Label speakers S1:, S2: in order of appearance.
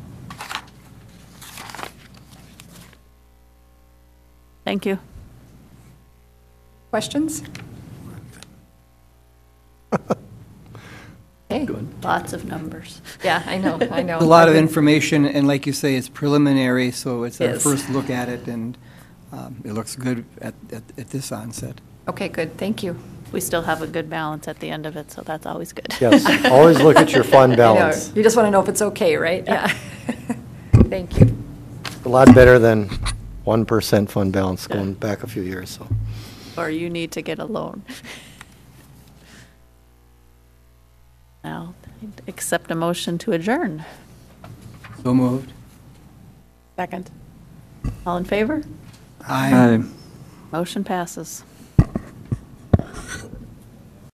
S1: Thank you.
S2: Questions? Okay,
S1: Lots of numbers.
S2: yeah, I know, I know.
S3: A lot of information, and like you say, it's preliminary, so it's our
S1: Yes.
S3: first look at it, and um, it looks good at, at at this onset.
S2: Okay, good, thank you.
S1: We still have a good balance at the end of it, so that's always good.
S4: Yes, always look at your fund
S2: I know,
S4: balance.
S2: You just want to know if it's okay, right? Yeah. Thank you.
S4: A lot better than 1% fund balance going back a few years, so.
S1: Or you need to get a loan. Now, I'd accept a motion to adjourn.
S3: So moved.
S1: Second. All in favor?
S3: Aye.
S1: Motion passes.